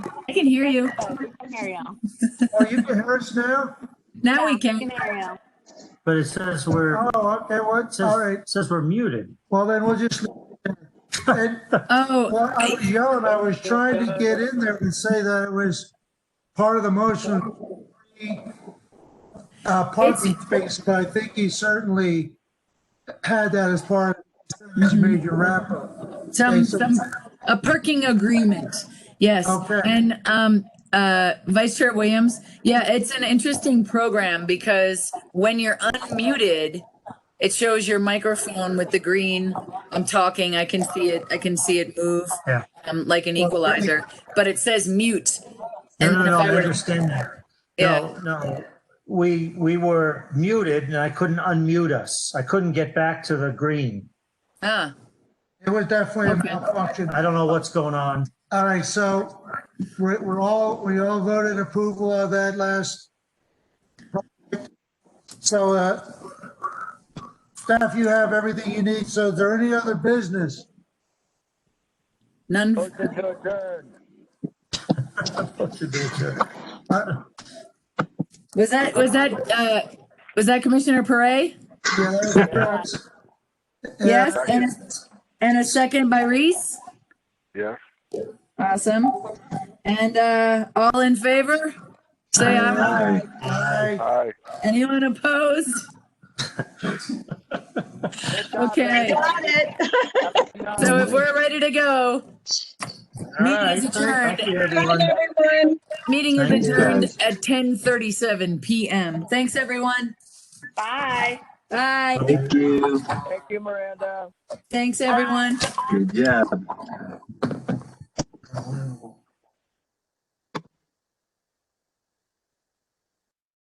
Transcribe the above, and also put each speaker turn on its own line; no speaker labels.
I can hear you.
Scenario.
Oh, you can hear us now?
Now we can.
Scenario.
But it says we're,
Oh, okay, what, all right.
says, says we're muted.
Well, then we'll just. And,
Oh,
well, I was yelling, I was trying to get in there and say that it was part of the motion. Uh, parking space, but I think he certainly had that as part of his major wrap-up.
some, some, a perking agreement. Yes.
Okay.
And, um, uh, Vice Chair Williams, yeah, it's an interesting program because when you're unmuted, it shows your microphone with the green. I'm talking, I can see it, I can see it move.
Yeah.
Um, like an equalizer, but it says mute.
No,
And
no,
if
no,
I
I
were to-
understand that.
Yeah.
No, no, we, we were muted and I couldn't unmute us. I couldn't get back to the green.
Ah,
It was definitely a
Okay.
malfunction.
I don't know what's going on.
All right, so we're, we're all, we all voted approval of that last. So, uh, staff, you have everything you need. So is there any other business?
none.
Motion to adjourn.
Uh,
Was that, was that, uh, was that Commissioner Perez?
Yeah, that was-
Yes, and, a- and a second by Reese.
Yes.
Awesome. And uh, all in favor? Say aye.
Aye, aye.
Aye.
Anyone opposed? Okay,
Got it.
so if we're ready to go,
All
meeting
right.
is
Thank you,
adjourned.
everyone.
Everyone.
Meeting is
Thank you,
adjourned
guys.
at 10:37 PM. Thanks, everyone.
Bye.
Bye.
Thank you.
Thank you, Miranda.
Thanks, everyone.
Good job.